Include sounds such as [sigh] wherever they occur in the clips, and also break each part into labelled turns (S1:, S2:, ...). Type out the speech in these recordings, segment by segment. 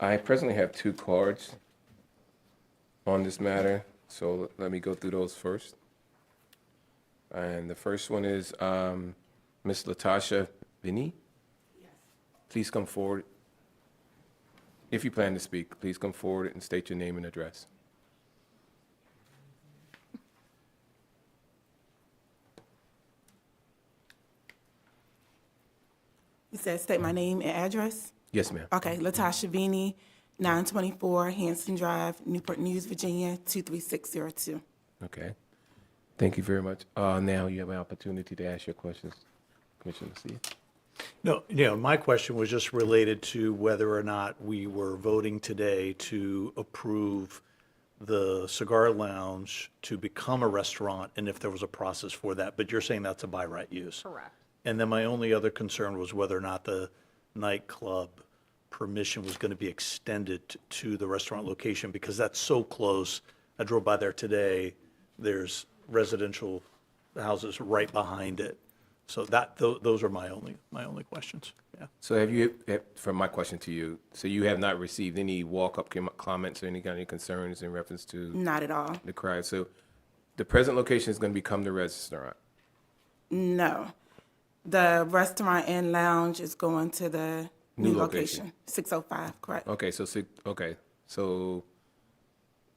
S1: I presently have two cards on this matter, so let me go through those first. And the first one is um, Ms. Latasha Vinnie. Please come forward. If you plan to speak, please come forward and state your name and address.
S2: You said state my name and address?
S1: Yes, ma'am.
S2: Okay, Latasha Vini, 924 Hanson Drive, Newport News, Virginia, 23602.
S1: Okay. Thank you very much. Uh, Now you have an opportunity to ask your questions, Commissioner Lucia.
S3: No, you know, my question was just related to whether or not we were voting today to approve the cigar lounge to become a restaurant and if there was a process for that, but you're saying that's a by right use? Correct. And then my only other concern was whether or not the nightclub permission was going to be extended t- to the restaurant location because that's so close. I drove by there today. There's residential houses right behind it. So that, tho- those are my only, my only questions. Yeah.
S1: So have you, eh, from my question to you, so you have not received any walk-up com- comments or any kind of concerns in reference to
S2: Not at all.
S1: the crowd? So the present location is going to become the restaurant.
S2: No. The restaurant and lounge is going to the
S1: New
S2: new
S1: location.
S2: location, 605, correct?
S1: Okay, so, si- okay, so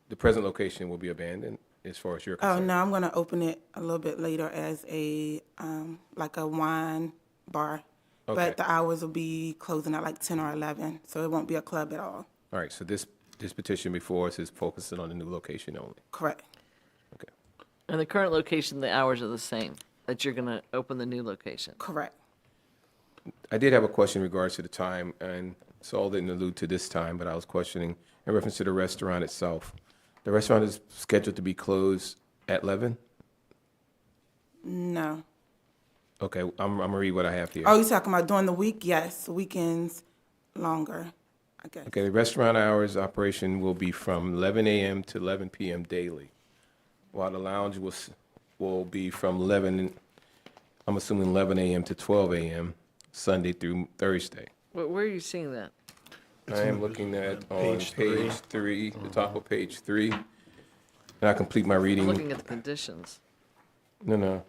S1: the present location will be abandoned as far as you're
S2: Oh,
S1: concerned?
S2: no, I'm going to open it a little bit later as a, um, like a wine bar.
S1: Okay.
S2: But the hours will be closing at like 10 or 11, so it won't be a club at all,
S1: All right, so this, this petition before us is focusing on the new location only.
S2: correct?
S1: Okay.
S4: And the current location, the hours are the same, that you're going to open the new location.
S2: Correct.
S1: I did have a question in regards to the time, and Saul didn't allude to this time, but I was questioning in reference to the restaurant itself. The restaurant is scheduled to be closed at 11?
S2: No.
S1: Okay, I'm, I'm gonna read what I have here.
S2: Oh, you talking about during the week? Yes, weekends longer, I guess.
S1: Okay, the restaurant hours operation will be from 11 a.m. to 11 p.m. daily, while the lounge will, s- will be from 11, I'm assuming 11 a.m. to 12 a.m., Sunday through Thursday.
S4: Where, where are you seeing that?
S1: I am looking at on
S3: page three.
S1: page three, the top of page three, and I complete my
S4: I'm
S1: reading.
S4: looking at the conditions,
S1: No, no.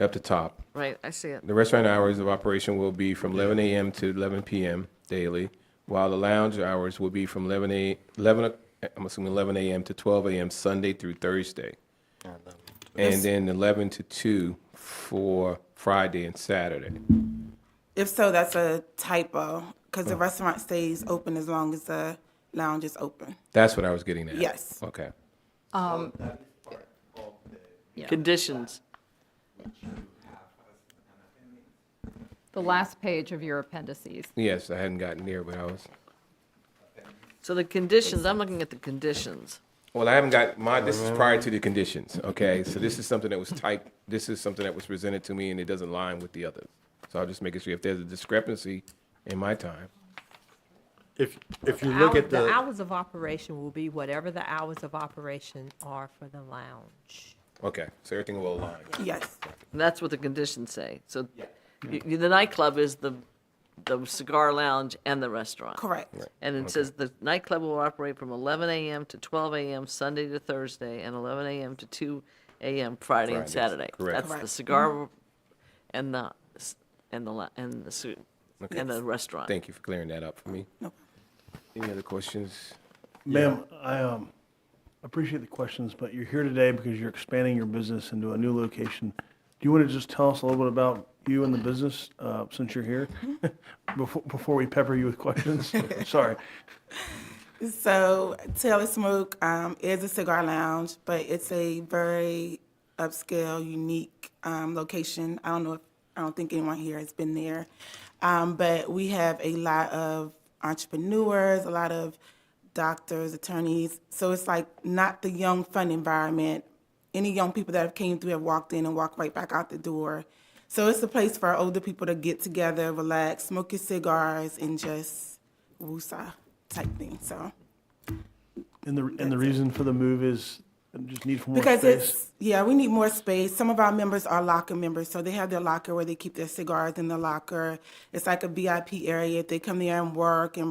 S1: Up the top.
S4: right? I see it.
S1: The restaurant hours of operation will be from 11 a.m. to 11 p.m. daily, while the lounge hours will be from 11 a 11. o- I'm assuming 11 a.m. to 12 a.m. Sunday through Thursday, and then 11 to 2 for Friday and Saturday.
S2: If so, that's a typo because the restaurant stays open as long as the lounge is open.
S1: That's what I was getting at.
S2: Yes.
S1: Okay.
S4: Conditions.
S5: The last page of your appendices.
S1: Yes, I hadn't gotten there, but I was.
S4: So the conditions, I'm looking at the conditions.
S1: Well, I haven't got my, this is prior to the conditions, okay? So this is something that was typed, this is something that was presented to me and it doesn't line with the others. So I'll just make it sure if there's a discrepancy in my time.
S6: If, if you look
S7: hour-
S6: at the,
S7: hours of operation will be whatever the hours of operation are for the lounge.
S1: Okay, so everything will align.
S2: Yes,
S4: And that's what the conditions say. So y- y- the nightclub is the, the cigar lounge and the restaurant.
S2: correct.
S4: And it says the nightclub will operate from 11 a.m. to 12 a.m. Sunday to Thursday and 11 a.m. to 2 a.m. Friday and
S1: Fridays,
S4: Saturday.
S1: correct.
S4: That's the
S2: Correct.
S4: cigar and the, s- and the, la- and the, su- and the restaurant.
S1: Thank you for clearing that up for me. Any other questions?
S8: Ma'am, I um, appreciate the questions, but you're here today because you're expanding your business into a new location. Do you want to just tell us a little bit about you and the business, uh, since you're here?
S2: Mm-hmm.
S8: [laughs] Before, before we pepper you
S2: [laughs]
S8: with questions? Sorry.
S2: So Taylor Smoke um, is a cigar lounge, but it's a very upscale, unique um, location. I don't know if I don't think anyone here has been there, um, but we have a lot of entrepreneurs, a lot of doctors, attorneys. So it's like not the young fun environment. Any young people that have came through have walked in and walked right back out the door. So it's a place for older people to get together, relax, smoke your cigars, and just woosah type thing. So
S8: And the, and the reason for the move is just need for more
S2: because
S8: space?
S2: it's yeah, we need more space. Some of our members are locker members, so they have their locker where they keep their cigars in the locker. It's like a VIP area. If they come there and work and